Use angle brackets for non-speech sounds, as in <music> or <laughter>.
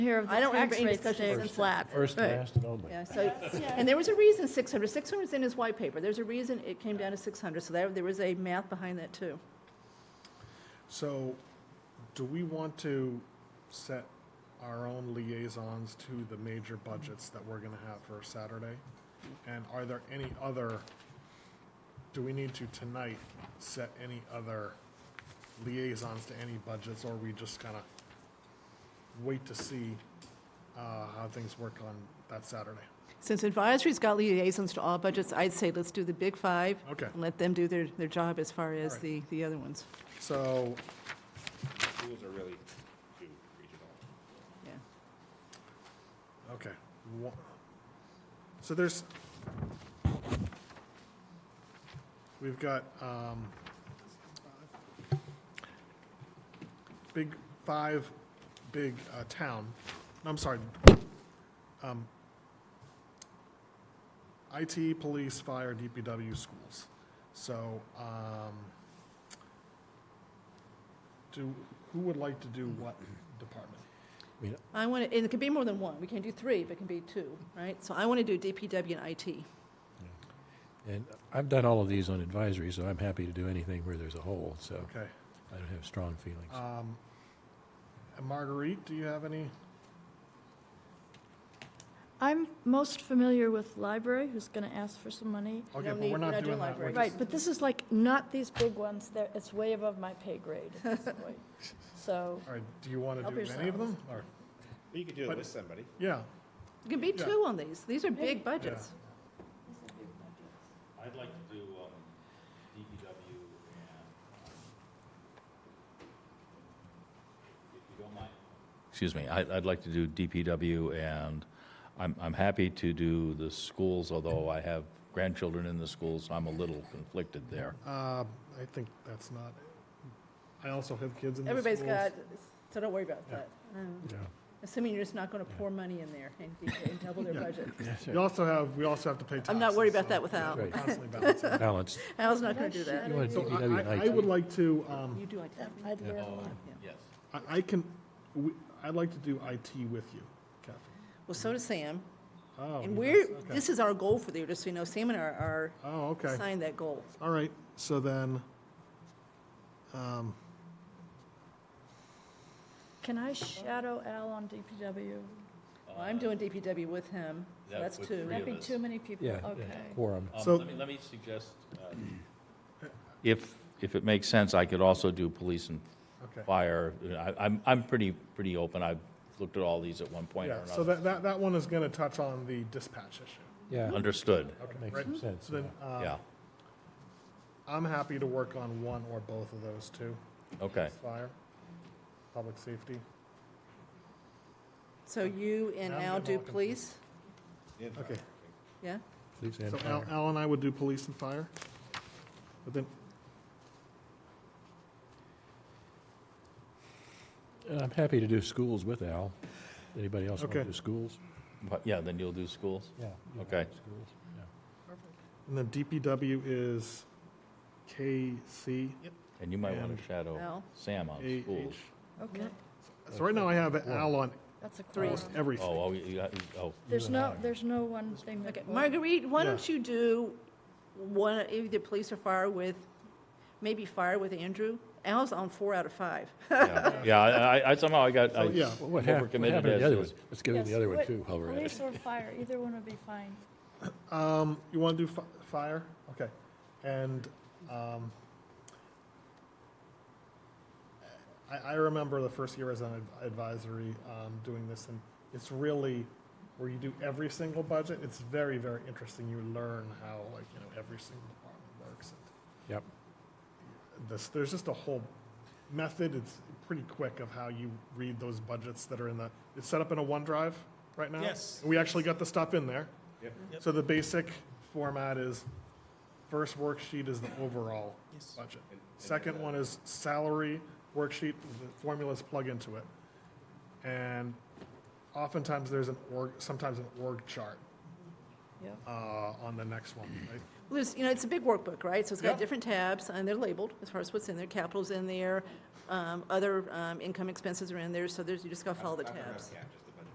Here of the I don't remember tax any rates discussion today since was that. flat. First, Right. last, and only. Yeah, so, and there was a reason 600, 600 is in his white paper, there's a reason it came down to 600, so there, there was a math behind that too. So, do we want to set our own liaisons to the major budgets that we're gonna have for Saturday? And are there any other, do we need to tonight set any other liaisons to any budgets, or we just kinda wait to see, uh, how things work on that Saturday? Since advisory's got liaisons to all budgets, I'd say let's do the big five. Okay. And let them do their, their job as far as Alright. the, the other ones, So, Schools are really too regional. yeah. Okay. Wha- So there's, we've got, um, big, five, big, uh, town, I'm sorry, um, IT, police, fire, DPW, schools. So, um, do, who would like to do what department? I want to, and it could be more than one, we can do three, but it can be two, right? So I want to do DPW and IT. And I've done all of these on advisory, so I'm happy to do anything where there's a hole, so Okay. I don't have strong feelings. Uh, Um, and Marguerite, do you have any? I'm most familiar with library, who's going to ask for some money. Okay, don't but we're need- not not doing doing that. We're library. Right, just- but this is like not these big ones, They're- it's way above my pay grade at this point. So, All right, do you want to Help do any of them? Or, But you could do But- it with somebody. yeah, It can be Yeah. two on these, these are big budgets. I'd like to do um, DPW and, um, if you don't mind. Excuse me, I- I'd like to do DPW and I'm I'm happy to do the schools, although I have grandchildren in the schools, I'm a little conflicted there. uh, I think that's not, I also have kids in the schools. Everybody's got, so don't worry about Yeah. that. Yeah. Assuming you're just not going to pour money in there and and double their Yeah. budget. You also have, we also have to pay taxes. I'm not worried about so that without. we're Right. <laughs> constantly balancing. Balanced. <laughs> I was not going to do that. You want So DPW I- and I, I IT. would like to, um, You do IT. I'd learn a lot. Yes. I, I can, we- I'd like to do IT with you, Kathy. Well, so does Sam. Oh, And yes, we're, okay. this is our goal for the year, just so you know, Sam and I are Oh, are okay. assigned that goal. All right, so then, um, can I shadow Al on DPW? Well, I'm doing DPW with him, so That that's would two. free- That'd be of us. too many people, Yeah, okay. quorum. Um, So- Let me, let me suggest, uh, if, if it makes sense, I could also do police and okay. fire. I- I'm, I'm pretty, pretty open. I've looked at all these at one point or Yeah, so another. that, that, that one is gonna touch on the dispatch issue. Yeah, Understood, Okay, makes right? some sense. So then, um, yeah, I'm happy to work on one or both of those two. okay. Fire, public safety. So you and Now I'm Al getting do all confused. police, Okay. yeah? Police and So Al, fire. Al and I would do police and fire. But then, And I'm happy to do schools with Al. Anybody else want to Okay. do schools? But, yeah, then you'll do schools? Yeah. Okay. Schools, yeah. and then DPW is KC. And you might want And- to shadow Al? Sam on A- schools. H. Okay, So right now I have Al on that's a quorum. almost everything. Oh, oh, you, you- oh, There's You and no, I. there's no one thing that. Okay, Marguerite, why Yeah. don't you do one, either police or fire with, maybe fire with Andrew? Al's on four out of five. yeah, yeah, I, I- I somehow I got, I So, yeah, Well, What hap- what overcommitted happened to the as other is- one? Let's go to the Yes, other one what- too, while we're at it. Police or fire, either one would be fine. Um, you wanna do fi- fire? Okay. And, um, I, I remember the first year as an ad- advisory, um, doing this and it's really where you do every single budget. It's very, very interesting. You learn how like, you know, every single department works. Yep. this, there's just a whole method, it's pretty quick of how you read those budgets that are in the, it's set up in a OneDrive right now? Yes. We actually got the stuff in there. Yep. Yep. So the basic format is, first worksheet is the overall budget. Second one is salary worksheet, the formulas plug into it. And oftentimes there's an org, sometimes an org chart Yep. uh, on the next one, right? Well, There's, you know, it's a big workbook, right? So it's got Yeah. different tabs, and they're labeled as far as what's in there, capital's in there, um, other um, income expenses are in there, so there's, you just gotta follow the tabs. Yeah, just